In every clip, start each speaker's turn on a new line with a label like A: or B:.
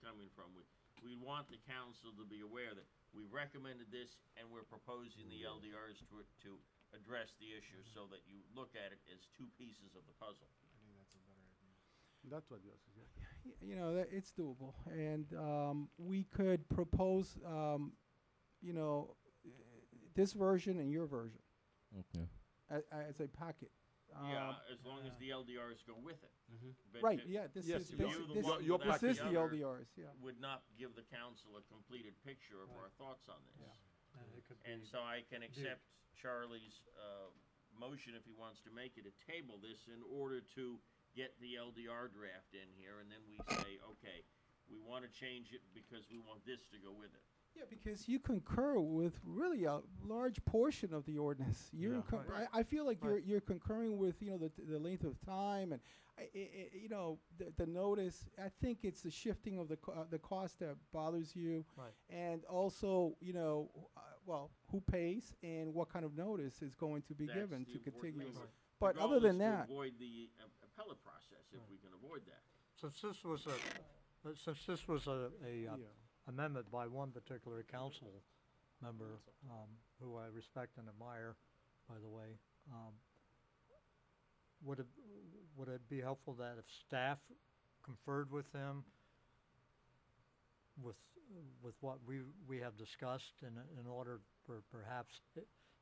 A: from. We, we want the council to be aware that we recommended this and we're proposing the LDRs to, to address the issue so that you look at it as two pieces of the
B: I
A: puzzle.
B: think that's a better idea.
C: That's what yours is, yeah.
D: Y- you know that it's doable and um, we could propose um, you know eh, this version and your version
E: Okay.
D: as, as a packet um, uh, Mm-hmm.
A: Yeah, as long as the LDRs go with it. But
D: right
A: it
D: yeah this
C: Yes, you
D: is this,
A: are the
D: this,
A: one
D: this
A: without
D: is
A: the
D: the
A: other.
D: ldrs yeah
A: Would not give the council a completed picture of our thoughts on this.
D: Yeah.
B: And it could be.
A: And so I can accept Charlie's uh, motion if he wants to make it, to table this in order to get the LDR draft in here, and then we say, okay, we want to change it because we want this to go with it.
D: yeah because you concur with really a large portion of the ordinance you're
B: Yeah.
D: inco-
A: Right.
D: I, I feel like you're
C: Right.
D: you're concurring with you know the, the length of time and I, I, I, you know the, the notice i think it's the shifting of the co- uh, the cost that bothers you
C: Right.
D: and also you know uh, well who pays and what kind of notice is going to be
A: That's
D: given
A: the
D: to
A: important
D: contiguous
A: thing. Right.
D: but
A: The
D: other
A: goal is
D: than
A: to
D: that
A: Avoid the uh, appellate process if we can avoid that.
C: Since this was a, uh, since this was a, a uh,
D: Yeah.
C: amendment by one particular council member, um, who I respect and admire, by the way, um, would it, would it be helpful that if staff conferred with him with, with what we, we have discussed in, in order for perhaps,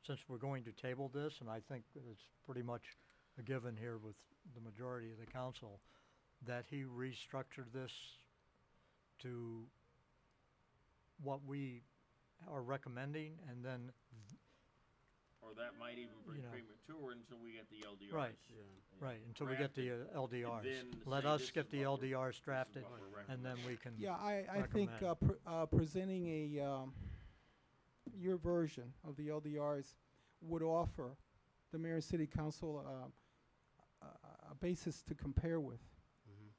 C: since we're going to table this, and I think it's pretty much a given here with the majority of the council, that he restructured this to what we are recommending and then,
A: Or that might even be
C: You know.
A: premature until we get the LDRs.
C: Right. right, until we get the
A: Drafted,
C: uh, LDRs.
A: then
C: Let
A: say
C: us
A: this is
C: get the
A: what we're-
C: LDRs
A: This is
C: drafted
A: what we're
C: and then we can,
D: Yeah, I, I think
C: recommend.
D: uh, pr- uh, presenting a um, your version of the LDRs would offer the mayor and city council uh, a, a basis to compare with.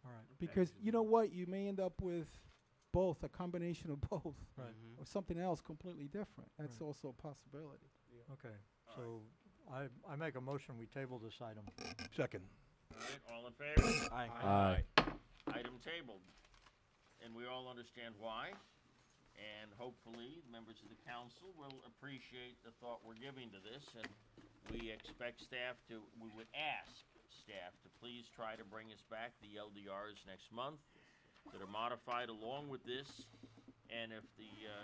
C: all right,
D: Because you know what, you may end up with both a combination of both
C: right,
A: Mm-hmm.
D: or something else completely different. That's
C: Right.
D: also a possibility.
C: okay.
A: All
C: So I, I make a motion, we table this item.
F: Second.
A: All right, all in favor?
E: Aye.
A: Item tabled. And we all understand why. And hopefully, members of the council will appreciate the thought we're giving to this. And we expect staff to, we would ask staff to please try to bring us back the LDRs next month that are modified along with this. And if the uh,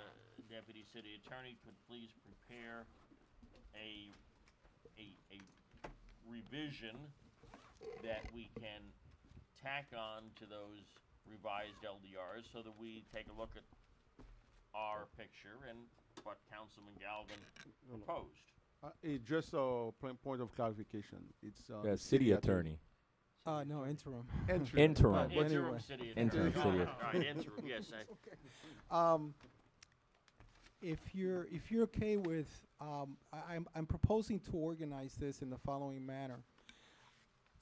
A: deputy city attorney could please prepare a, a, a revision that we can tack on to those revised LDRs so that we take a look at our picture and what Councilman Galvin proposed.
G: Uh, it's just a plain point of clarification. It's uh,
E: The city attorney.
D: Uh, no, interim.
G: Entry.
E: Interim.
D: Well,
A: Interim
D: anyway.
A: city attorney.
E: Interim city
A: All right, interim, yes. I-
D: Um, if you're, if you're okay with, um, I, I'm, I'm proposing to organize this in the following manner.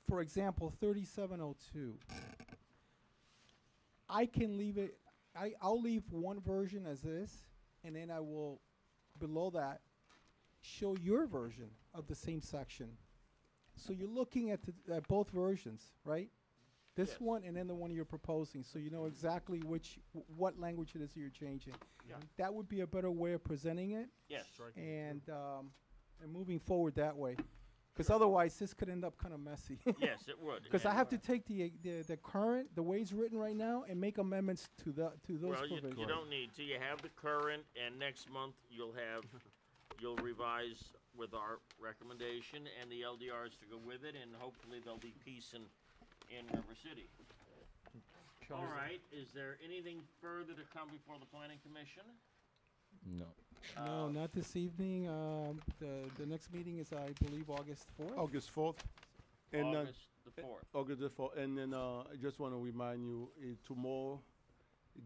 D: For example, thirty-seven oh two. I can leave it, I, I'll leave one version as this, and then I will, below that, show your version of the same section. So you're looking at, the, at both versions, right? This
A: Yes.
D: one and then the one you're proposing, so you know exactly which wh- what language it is you're changing.
A: Yeah.
D: That would be a better way of presenting it,
A: Yes,
D: and um, and moving forward that way, because otherwise this could end up kind of messy.
A: yes, it would.
D: Because I have to take the, the the current the way it's written right now and make amendments to the to those
A: Well, you,
D: provisions.
A: you don't need to. You have the current, and next month you'll have, you'll revise with our recommendation and the LDRs to go with it, and hopefully there'll be peace in, in River City. All right, is there anything further to come before the planning commission?
E: No.
A: uh,
D: No, not this evening. Um, the the next meeting is I believe August fourth.
G: August fourth. And uh,
A: August the fourth.
G: August the fourth. And then uh, I just want to remind you, uh, tomorrow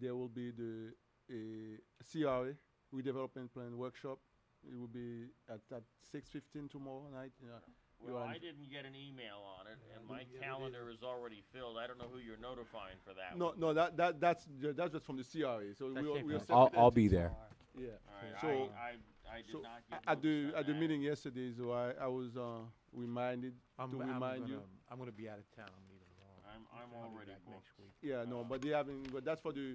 G: there will be the uh, CRA redevelopment plan workshop. It will be at, at six fifteen tomorrow night. Yeah.
A: Well,
G: You're on-
A: I didn't get an email on it, and my
B: didn't get it
A: calendar is already filled. I don't know who you're notifying for that
G: No,
A: one.
G: no, that, that that's ju- that's just from the CRA. So we are, we are
E: I'll,
G: separate
E: I'll
G: entity.
E: be there.
G: Yeah.
A: All right,
G: So-
A: I, I, I did
G: So
A: not get
G: at the
A: notice on
G: at the
A: that.
G: meeting yesterday, so I, I was uh, reminded
F: I'm,
G: to
F: I'm
G: remind
F: gonna,
G: you.
F: I'm gonna be out of town. I'm leaving tomorrow.
A: I'm, I'm
F: I'll be
A: already
F: back
A: booked.
F: next week.
G: Yeah, no, but they haven't. But that's for the